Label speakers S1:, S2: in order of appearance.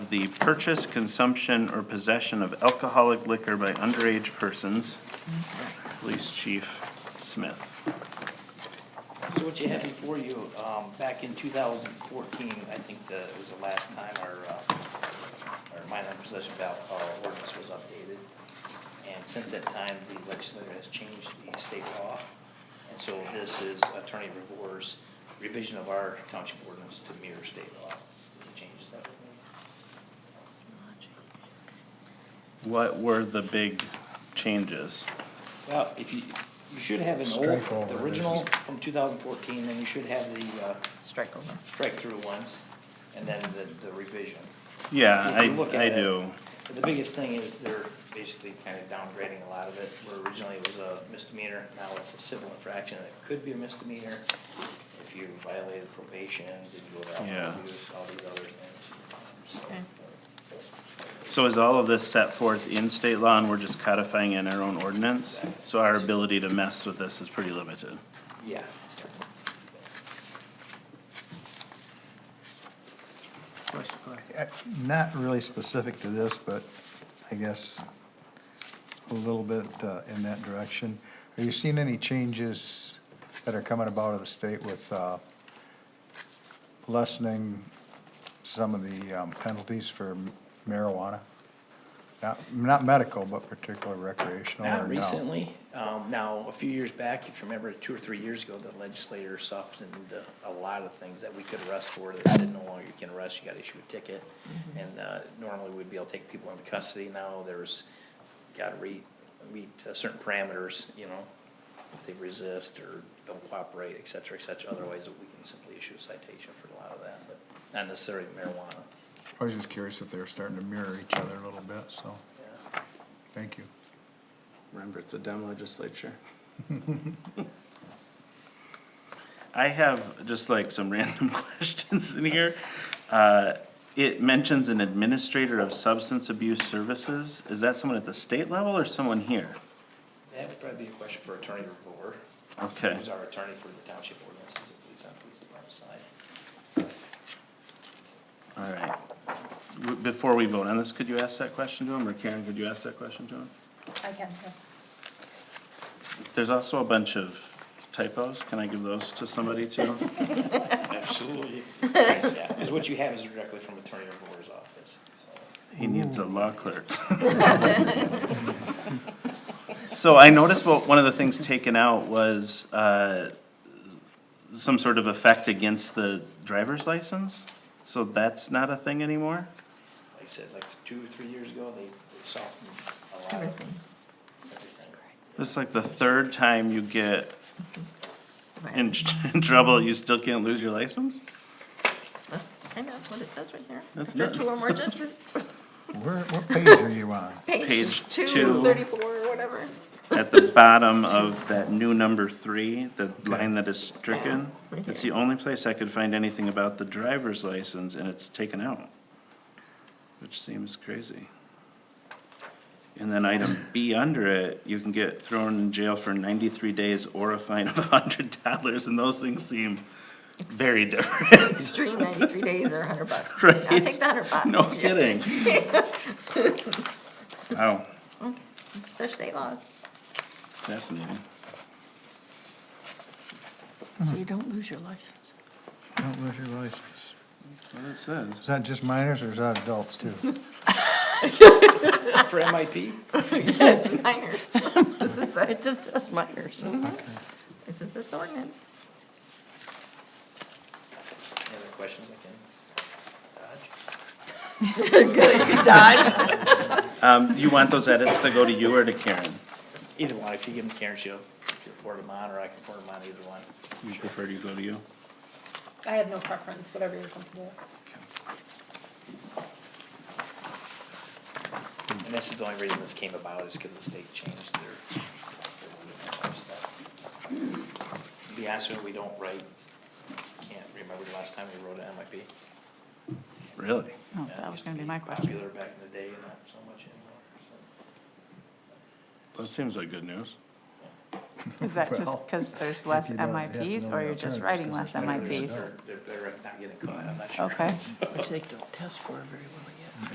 S1: the purchase, consumption, or possession of alcoholic liquor by underage persons. Police Chief Smith.
S2: So what you have before you, um, back in two thousand fourteen, I think that it was the last time our, uh, our minor possession of alcohol ordinance was updated. And since that time, the legislature has changed the state law. And so this is Attorney Revore's revision of our township ordinance to mirror state law. It changes that.
S1: What were the big changes?
S2: Well, if you, you should have an
S3: Strike
S2: old,
S3: over
S2: the
S3: this
S2: original
S3: is-
S2: from two thousand fourteen, and you should have the, uh,
S4: Strike over.
S2: strike-through ones, and then the, the revision.
S1: Yeah,
S2: If
S1: I,
S2: you look
S1: I
S2: at it,
S1: do.
S2: The biggest thing is they're basically kind of downgrading a lot of it, where originally it was a misdemeanor, now it's a civil infraction, and it could be a misdemeanor. If you violated probation, did you allow
S1: Yeah.
S2: alcohol use, all these other things. So,
S4: Okay.
S1: So is all of this set forth in state law and we're just codifying in our own ordinance? So our ability to mess with this is pretty limited.
S2: Yeah.
S3: Uh, Not really specific to this, but I guess a little bit uh, in that direction. Are you seeing any changes that are coming about of the state with uh, lessening some of the um, penalties for marijuana? Not, not medical, but particularly recreational or
S2: Not
S3: no?
S2: recently, um, now, a few years back, if you remember, two or three years ago, the legislator softened uh, a lot of things that we could arrest for, that said no longer you can arrest, you gotta issue a ticket. And, uh, normally we'd be able to take people into custody, now there's, gotta re, meet uh, certain parameters, you know, if they resist or don't cooperate, et cetera, et cetera, otherwise we can simply issue a citation for a lot of that, but not necessarily marijuana,
S3: I was just curious if they were starting to mirror each other a little bit, so,
S2: yeah.
S3: thank you.
S5: Remember, it's a dumb legislature.
S1: I have just like some random questions in here. Uh, It mentions an administrator of substance abuse services. Is that someone at the state level or someone here?
S2: That would probably be a question for Attorney Revore.
S1: Okay.
S2: Who's our attorney for the township ordinances, at least on police department side.
S1: All right. W- Before we vote on this, could you ask that question to him, or Karen, could you ask that question to him?
S4: I can,
S1: There's also a bunch of typos. Can I give those to somebody too?
S2: Absolutely. Yeah, because what you have is directly from Attorney Revore's office.
S1: He needs a law clerk. So I noticed what, one of the things taken out was, uh, some sort of effect against the driver's license. So that's not a thing anymore?
S2: Like I said, like two or three years ago, they they softened a lot of
S4: everything.
S2: everything.
S1: It's like the third time you get in trouble, you still can't lose your license?
S4: That's kind of what it says right here.
S1: That's
S4: After two or
S1: nuts.
S4: more judgments.
S3: Where, what page are you on?
S1: Page
S4: Page
S1: two.
S4: two, thirty-four, or whatever.
S1: At the bottom of that new number three, the line that is stricken,
S4: Yeah, right
S1: it's the
S4: here.
S1: only place I could find anything about the driver's license, and it's taken out. Which seems crazy. And then item B under it, you can get thrown in jail for ninety-three days or a fine of a hundred dollars, and those things seem very different,
S4: Extreme ninety-three days or a hundred bucks.
S1: right?
S4: I'll take the hundred bucks.
S1: No
S4: Yeah.
S1: kidding. Wow,
S4: They're state laws.
S1: fascinating.
S4: So you don't lose your license.
S3: Don't lose your license.
S1: That's what it says.
S3: Is that just minors or is that adults too?
S2: For MIP?
S4: It's minors. This is the, Mm-hmm.
S6: It's just us minors.
S4: this is this ordinance.
S2: Any other questions I can dodge?
S4: Dodge.
S1: Um, you want those edits to go to you or to Karen?
S2: Either one, if you give them to Karen, she'll, she'll forward them on, or I can forward them on, either one.
S1: You prefer to go to you?
S6: I have no preference, whatever you're comfortable with.
S2: And this is the only reason this came about is because the state changed their, their ruling and all that stuff. To be honest with you, we don't write, can't remember the last time we wrote an MIP.
S1: Really?
S2: Yeah,
S6: Oh,
S2: it
S6: that was
S2: used
S6: gonna
S2: to
S6: be my question.
S2: Popular back in the day, not so much anymore.
S1: That seems like good news.
S6: Is that just
S3: Well,
S6: because there's less
S3: you don't have to
S6: MIPs,
S3: know
S6: or
S3: the
S6: you're just
S3: alternatives
S6: writing
S3: 'cause
S6: less
S3: there's no
S2: so.
S3: reason.
S6: MIPs?
S2: They're, they're better at not getting caught, I'm not sure.
S6: Okay.
S2: So,
S4: Which they don't test for very well